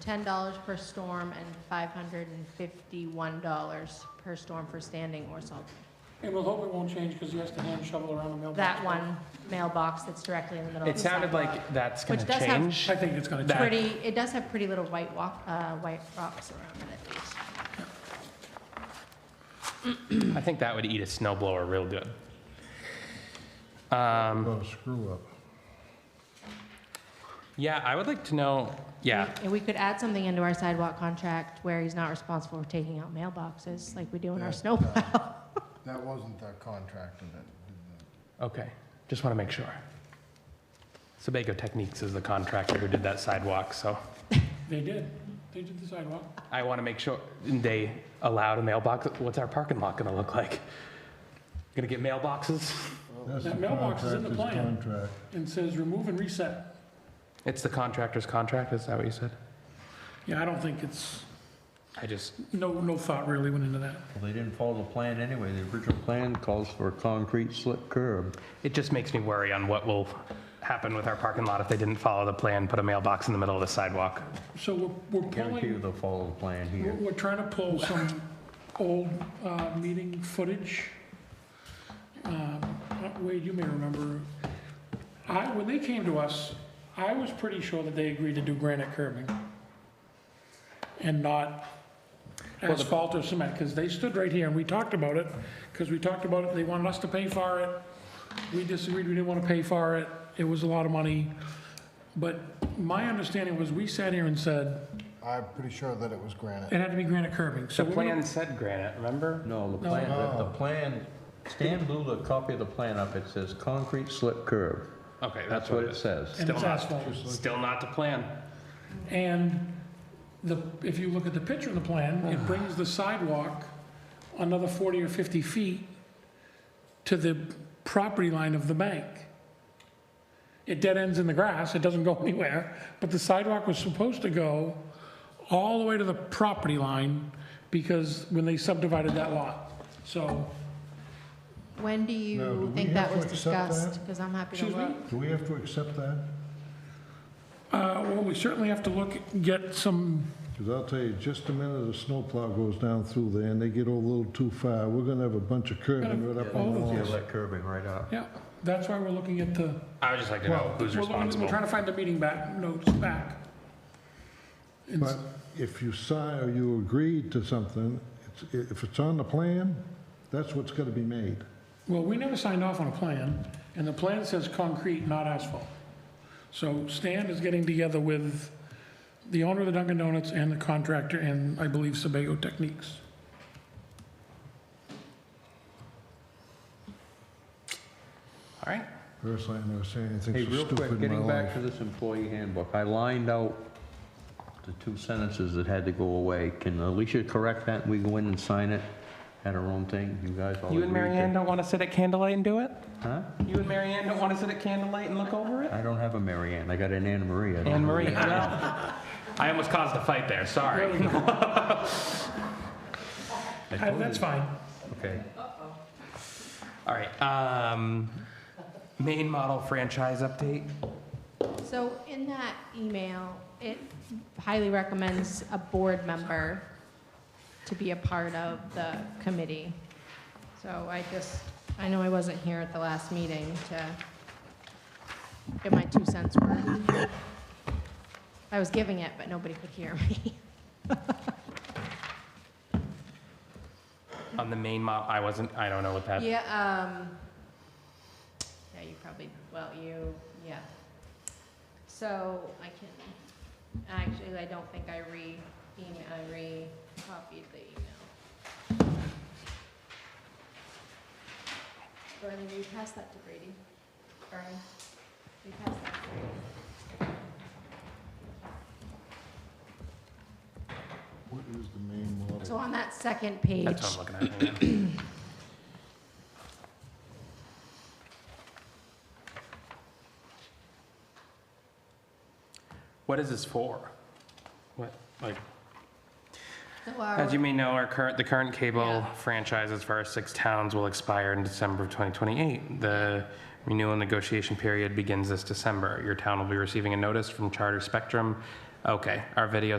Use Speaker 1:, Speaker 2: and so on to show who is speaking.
Speaker 1: ten dollars per storm and five hundred and fifty-one dollars per storm for standing or salt.
Speaker 2: And we'll hope it won't change because he has to hand shovel around the mailbox.
Speaker 1: That one mailbox that's directly in the middle of
Speaker 3: It
Speaker 1: the
Speaker 3: sounded
Speaker 1: sidewalk.
Speaker 3: like that's going
Speaker 1: Which
Speaker 3: to
Speaker 1: does have-
Speaker 3: change.
Speaker 2: I think it's gonna
Speaker 3: That-
Speaker 2: change.
Speaker 1: Pretty, it does have pretty little white walk, uh, white rocks around it.
Speaker 3: I think that would eat a snowblower real good.
Speaker 4: Well, screw up.
Speaker 3: Yeah, I would like to know, yeah,
Speaker 1: And we could add something into our sidewalk contract where he's not responsible for taking out mailboxes like we do in our
Speaker 4: Yeah.
Speaker 1: snowplow.
Speaker 4: That wasn't the contractor that did that.
Speaker 3: okay, just want to make sure. Sebago Techniques is the contractor who did that sidewalk, so
Speaker 2: They did. They did the sidewalk.
Speaker 3: I want to make sure they allowed a mailbox. What's our parking lot going to look like? Going to get mailboxes?
Speaker 4: That's
Speaker 2: That
Speaker 4: the
Speaker 2: mailbox is in the
Speaker 4: contractor's
Speaker 2: plan.
Speaker 4: Contract.
Speaker 2: And says remove and reset.
Speaker 3: It's the contractor's contract, is that what you said?
Speaker 2: Yeah, I don't think it's,
Speaker 3: I just,
Speaker 2: no, no thought really went into that.
Speaker 5: Well, they didn't follow the plan anyway. The original plan calls for a concrete slip curb.
Speaker 3: it just makes me worry on what will happen with our parking lot if they didn't follow the plan, put a mailbox in the middle of the sidewalk.
Speaker 2: So we're, we're
Speaker 5: Guarantee you
Speaker 2: pulling,
Speaker 5: they'll follow the plan
Speaker 2: we're,
Speaker 5: here.
Speaker 2: we're trying to pull some old, uh, meeting footage. Um, uh, Wade, you may remember, I, when they came to us, I was pretty sure that they agreed to do granite curbing and not asphalt or cement, because they stood right here and we talked about it, because we talked about it, they wanted us to pay for it. We disagreed, we didn't want to pay for it, it was a lot of money. But my understanding was, we sat here and said,
Speaker 4: I'm pretty sure that it was granite.
Speaker 2: It had to be granite curbing, so
Speaker 3: The
Speaker 2: we're gonna-
Speaker 3: plan said granite, remember?
Speaker 5: No, the plan, the- the plan, Stan blew the copy of the plan up. It says concrete slip curb.
Speaker 3: Okay,
Speaker 5: That's what it says.
Speaker 2: and it's
Speaker 3: Still not.
Speaker 2: asphalt.
Speaker 3: Still not the plan.
Speaker 2: And the, if you look at the picture in the plan, it brings the sidewalk another 40 or 50 feet to the property line of the bank. It dead ends in the grass, it doesn't go anywhere, but the sidewalk was supposed to go all the way to the property line because when they subdivided that lot. So,
Speaker 1: When do
Speaker 4: Now, do
Speaker 1: you
Speaker 4: we
Speaker 1: think
Speaker 4: have
Speaker 1: that
Speaker 4: to
Speaker 1: was
Speaker 4: accept
Speaker 1: discussed?
Speaker 4: that?
Speaker 1: Because I'm happy to
Speaker 2: Excuse me?
Speaker 1: look.
Speaker 4: Do we have to accept that?
Speaker 2: uh, well, we certainly have to look, get some
Speaker 4: Because I'll tell you, just a minute a snowplow goes down through there and they get a little too far, we're gonna have a bunch of curbing right up on
Speaker 2: all
Speaker 4: the
Speaker 5: Yeah,
Speaker 2: of
Speaker 4: walls.
Speaker 5: that curbing right up.
Speaker 2: Yeah, that's why we're looking at the,
Speaker 3: I would just like to know who's
Speaker 2: we're looking, we're
Speaker 3: responsible.
Speaker 2: trying to find the meeting back, notes back. And s-
Speaker 4: But if you sign or you agreed to something, it's- if it's on the plan, that's what's gonna be made.
Speaker 2: Well, we never signed off on a plan, and the plan says concrete, not asphalt. So Stan is getting together with the owner of the Dunkin' Donuts and the contractor, and I believe Sebago Techniques.
Speaker 3: All right.
Speaker 4: Personally, I never say anything
Speaker 5: Hey,
Speaker 4: so
Speaker 5: real quick,
Speaker 4: stupid in my
Speaker 5: getting back to
Speaker 4: life.
Speaker 5: this employee handbook, I lined out the two sentences that had to go away. Can Alicia correct that? We go in and sign it at our own thing? You guys all
Speaker 3: You and
Speaker 5: agree
Speaker 3: Mary
Speaker 5: to-
Speaker 3: Ann don't want to sit at candlelight and do it?
Speaker 5: Huh?
Speaker 3: You and Mary Ann don't want to sit at candlelight and look over it?
Speaker 5: I don't have a Mary Ann. I got an Anne Marie. I don't
Speaker 3: Anne
Speaker 5: know.
Speaker 3: Marie, well, I almost caused a fight there, sorry.
Speaker 5: I
Speaker 2: Uh,
Speaker 5: told
Speaker 2: That's
Speaker 5: you.
Speaker 2: fine.
Speaker 5: Okay.
Speaker 3: All right, um, main model franchise update?
Speaker 1: So in that email, it highly recommends a board member to be a part of the committee. So I just, I know I wasn't here at the last meeting to get my two cents worth. I was giving it, but nobody could hear me.
Speaker 3: On the main model, I wasn't, I don't know what that,
Speaker 1: Yeah, um, yeah, you probably, well, you, yeah. So I can, actually, I don't think I re, email, I re-copied the email. Bernie, will you pass that to Brady? Bernie, will you pass that to Brady?
Speaker 4: What is the main model?
Speaker 1: So on that second page.
Speaker 3: that's what I'm looking at. hang on. What is this for? What, like?
Speaker 1: So our-
Speaker 3: As you may know, our current, the current cable
Speaker 1: Oh. Yeah.
Speaker 3: franchises for our six towns will expire in December of 2028. The renewal negotiation period begins this December. Your town will be receiving a notice from Charter Spectrum. Okay, our video